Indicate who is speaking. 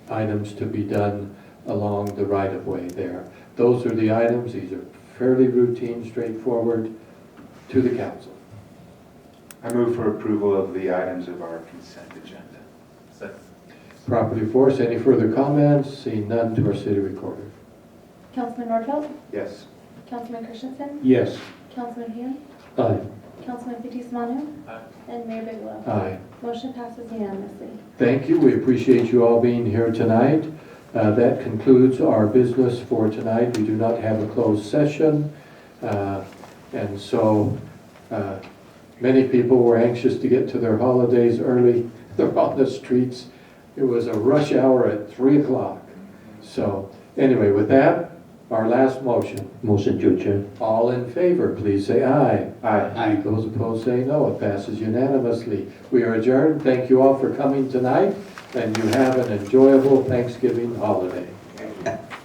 Speaker 1: items to be done along the right-of-way there. Those are the items, these are fairly routine, straightforward, to the council.
Speaker 2: I move for approval of the items of our consent agenda.
Speaker 1: Property force, any further comments? Seeing none to our city recorder.
Speaker 3: Councilman Nordfeld,
Speaker 2: Yes.
Speaker 3: Councilman Christensen,
Speaker 1: Yes.
Speaker 3: Councilman Hume,
Speaker 1: Aye.
Speaker 3: Councilman Fitzie Umanu, and Mayor Bigelow.
Speaker 1: Aye.
Speaker 3: Motion passes unanimously.
Speaker 1: Thank you. We appreciate you all being here tonight. Uh, That concludes our business for tonight. We do not have a closed session. Uh, And so uh, many people were anxious to get to their holidays early. They're on the streets. It was a rush hour at 3 o'clock. So anyway, with that, our last motion.
Speaker 4: Motion to adjourn.
Speaker 1: All in favor, please say aye.
Speaker 2: Aye.
Speaker 4: Aye.
Speaker 1: Those opposed say no. It passes unanimously. We are adjourned. Thank you all for coming tonight, and you have an enjoyable Thanksgiving holiday.